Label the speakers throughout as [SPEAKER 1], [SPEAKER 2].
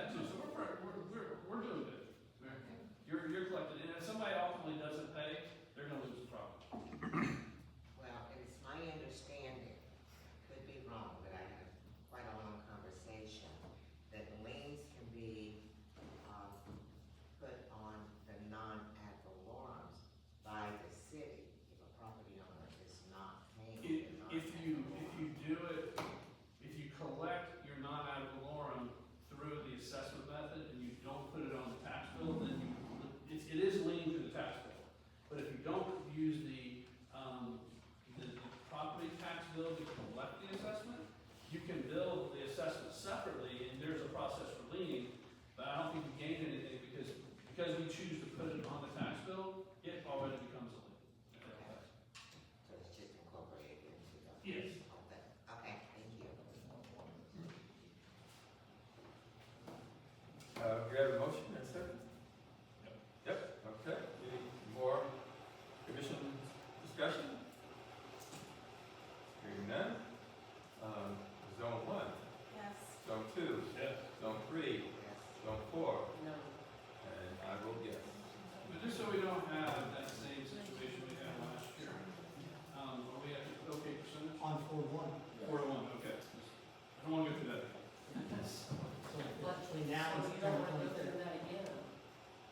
[SPEAKER 1] Oh, uh,
[SPEAKER 2] um,
[SPEAKER 1] um,
[SPEAKER 3] Uh, we have a motion and second? Yep, okay, any more commission discussion? Hearing none, um, zone one,
[SPEAKER 4] Yes.
[SPEAKER 3] zone two,
[SPEAKER 1] Yes.
[SPEAKER 3] zone three, zone four,
[SPEAKER 4] No.
[SPEAKER 3] and I vote yes.
[SPEAKER 1] But just so we don't have that same situation we had last year, um, are we at okay percentage?
[SPEAKER 5] on four one.
[SPEAKER 1] Four to one, okay. I don't wanna go through that. again.
[SPEAKER 5] So actually now
[SPEAKER 4] So
[SPEAKER 5] it's
[SPEAKER 4] You don't
[SPEAKER 5] ten
[SPEAKER 4] want to go
[SPEAKER 5] twenty-three.
[SPEAKER 4] through that again.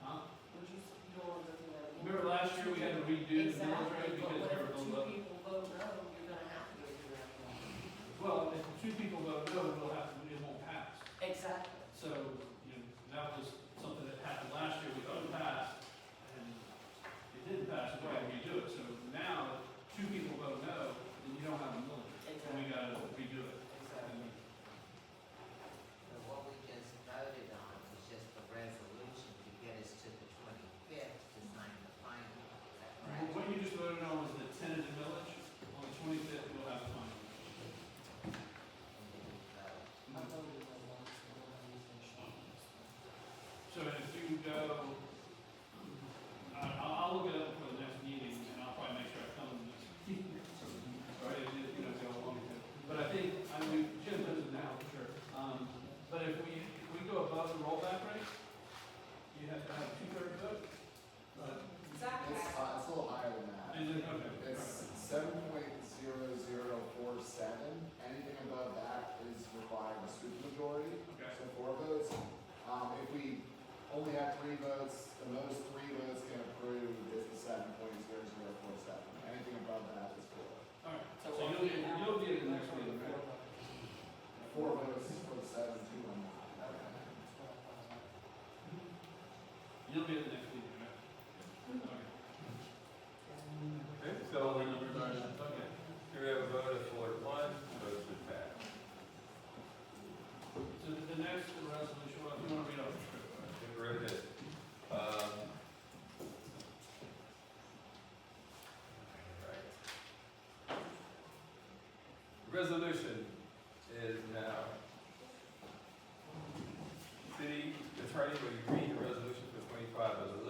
[SPEAKER 1] Huh?
[SPEAKER 4] Would you, you don't want to go through that again.
[SPEAKER 1] Remember last year we had to redo the millage
[SPEAKER 4] Exactly,
[SPEAKER 1] rate
[SPEAKER 4] but
[SPEAKER 1] because we
[SPEAKER 4] whatever
[SPEAKER 1] were
[SPEAKER 4] two
[SPEAKER 1] below.
[SPEAKER 4] people vote no, you're gonna have to go through that again.
[SPEAKER 1] Well, if two people vote no, we'll have, to- it won't pass.
[SPEAKER 4] Exactly.
[SPEAKER 1] So, you know, that was something that happened last year, we thought it passed, and it didn't pass, so we had to redo it. So now, if two people vote no, then you don't have a millage rate, and we
[SPEAKER 4] Exactly.
[SPEAKER 1] gotta redo it.
[SPEAKER 4] Exactly.
[SPEAKER 2] But what we just voted on was just the resolution to get us to the twenty-fifth to sign the final, is that
[SPEAKER 1] Well,
[SPEAKER 2] correct?
[SPEAKER 1] What you just voted on was the tentative millage, on the twenty-fifth, we'll have a final.
[SPEAKER 2] And then we vote.
[SPEAKER 4] I voted no once, and then I used my chance.
[SPEAKER 1] So if you go, um, I, I'll, I'll look it up for the next meeting, and I'll probably make sure I come to the next meeting. Sorry, if you know, if y'all want me to. But I think, I mean, Jim knows it now, for sure, um, but if we, if we go above the rollback rate, you have to have two-thirds vote? But,
[SPEAKER 4] Exactly.
[SPEAKER 6] It's, uh, it's a little higher than that.
[SPEAKER 1] is it, okay, all right.
[SPEAKER 6] It's seven point zero zero four seven. Anything above that is required a supermajority,
[SPEAKER 1] okay,
[SPEAKER 6] so four votes. Um, if we only have three votes, the most three votes can approve is the seven point zero zero four seven. Anything above that is four.
[SPEAKER 1] all right, so you'll be, you'll be at the next meeting, right?
[SPEAKER 6] Four votes for the seven, two on the.
[SPEAKER 1] You'll be at the next meeting, right? Okay.
[SPEAKER 3] Okay, so we,
[SPEAKER 1] Okay.
[SPEAKER 3] here we have a vote of four to one, vote to pass.
[SPEAKER 1] So the the next resolution, well, if you want to read off the script, all right?
[SPEAKER 3] Get rid of it. Um, right. Resolution is now. City attorney, will you read the resolution for twenty-five as a uh,